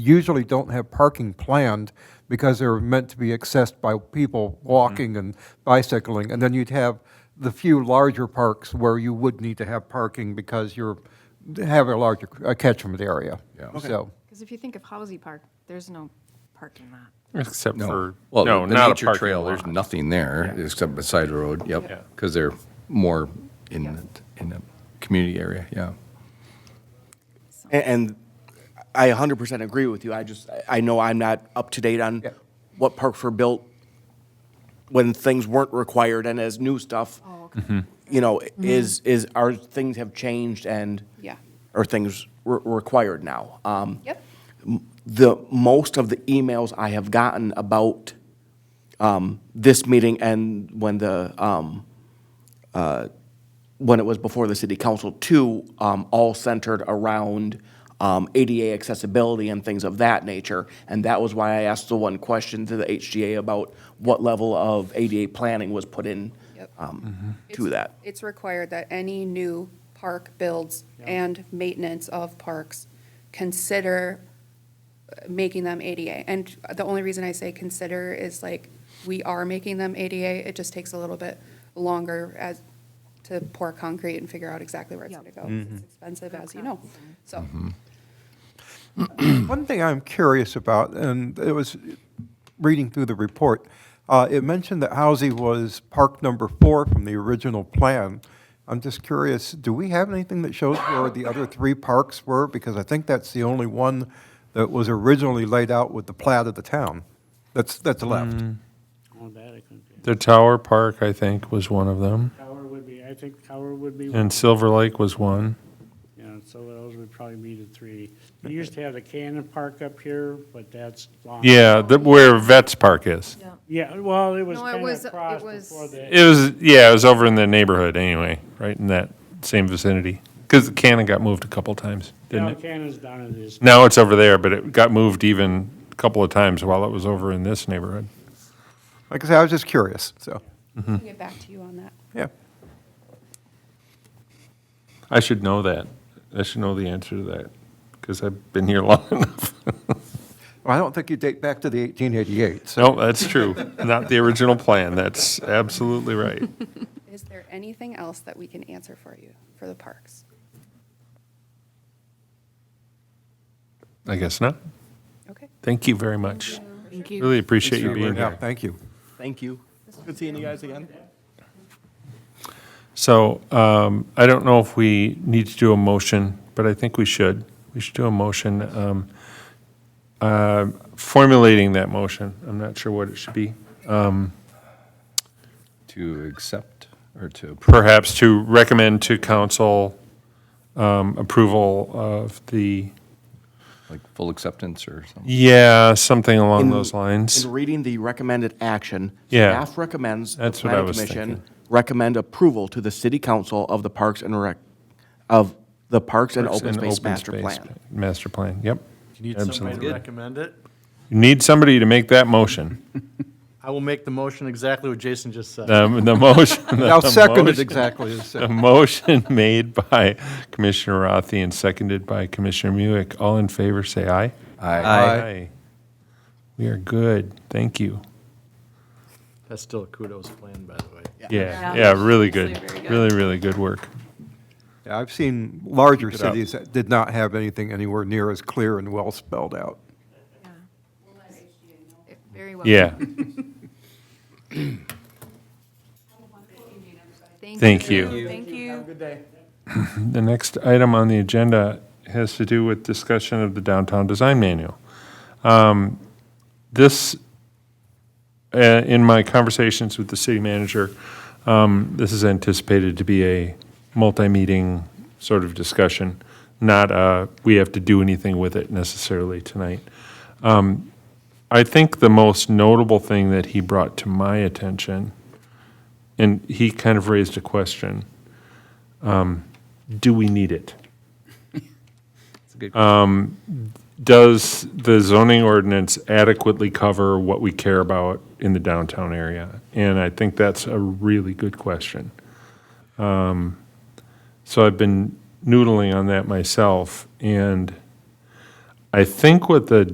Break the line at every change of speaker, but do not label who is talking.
usually don't have parking planned because they're meant to be accessed by people walking and bicycling. And then you'd have the few larger parks where you would need to have parking because you're, have a larger a catchment area. Yeah. So,
Because if you think of Halsey Park, there's no parking lot.
Except for,
Well,
no,
the
not a
nature
parking
trail, there's
lot.
nothing there except beside the road,
Yeah.
yep. Because they're more in, the- in the community area, yeah.
And, and I 100% agree with you. I just, I- I know I'm not up to date on
Yeah.
what parks were built when things weren't required and as new stuff,
Oh, okay. Mm-hmm.
you know, is, is, our things have changed and
Yeah.
are things re- required now. Um,
Yep.
the most of the emails I have gotten about um, this meeting and when the um, uh, when it was before the city council too, um, all centered around um, ADA accessibility and things of that nature. And that was why I asked the one question to the HGA about what level of ADA planning was put in
Yep. Mm-hmm.
um, to that.
It's required that any new park builds and maintenance of parks consider uh, making them ADA. And the only reason I say consider is like, we are making them ADA, it just takes a little bit longer as, to pour concrete and figure out exactly where it's gonna
Yep.
go.
Mm-hmm.
It's expensive, as you know, so.
one thing I'm curious about, and it was reading through the report, uh, it mentioned that Housie was park number four from the original plan. I'm just curious, do we have anything that shows where the other three parks were? Because I think that's the only one that was originally laid out with the plat of the town that's, that's left.
Oh, that I couldn't do.
The Tower Park, I think, was one of them,
Tower would be, I think tower would be,
and Silver Lake was one.
yeah, so those would probably be the three. We used to have the Cannon Park up here, but that's long.
Yeah, the, where Vets Park is.
Yeah, well, it was
No, it
kind
was-
of
it
across
was-
before the,
It was, yeah, it was over in the neighborhood anyway, right in that same vicinity. Because the cannon got moved a couple times, didn't
now
it?
Cannon's down in this.
Now it's over there, but it got moved even a couple of times while it was over in this neighborhood.
Like I said, I was just curious, so,
I'll get back to you on that.
yeah.
I should know that. I should know the answer to that, because I've been here long enough.
Well, I don't think you date back to the 1888, so.
No, that's true. Not the original plan. That's absolutely right.
Is there anything else that we can answer for you, for the parks?
I guess not.
Okay.
Thank you very much.
Thank
Really appreciate you being
Yeah,
here.
thank you.
Thank you. Good seeing you guys again.
So um, I don't know if we need to do a motion, but I think we should. We should do a motion. um, uh, Formulating that motion, I'm not sure what it should be. Um,
To accept or to approve.
Perhaps to recommend to council um, approval of the,
like full acceptance or something.
yeah, something along
In-
those lines.
In reading the recommended action,
Yeah.
staff recommends the
That's what I
planning
was
commission
thinking.
recommend approval to the city council of the Parks and Rec, of the Parks and Open
An
Space Master
space
Plan.
pla- Master plan, yep.
You need somebody
Absolutely.
to recommend it.
You Need somebody to make that motion.
I will make the motion exactly what Jason just said.
The the motion. the
Now, seconded
motion-
exactly as
A
said.
motion made by Commissioner Rothi and seconded by Commissioner Muick. All in favor, say aye. We are good. Thank you.
That's still a kudos plan, by the way.
Yeah,
Yeah.
yeah, really
Actually
good.
very good.
Really, really good work.
Yeah, I've seen larger
Keep it up.
cities that did not have anything anywhere near as clear and well spelled out.
Very well.
Yeah, thank you.
Thank you.
The next item on the agenda has to do with discussion of the downtown design manual. Um, This, uh, in my conversations with the city manager, um, this is anticipated to be a multi-meeting sort of discussion, not a, we have to do anything with it necessarily tonight. Um, I think the most notable thing that he brought to my attention, and he kind of raised a question, um, do we need it? Um, does the zoning ordinance adequately cover what we care about in the downtown area? And I think that's a really good question. Um, So I've been noodling on that myself, and I think what the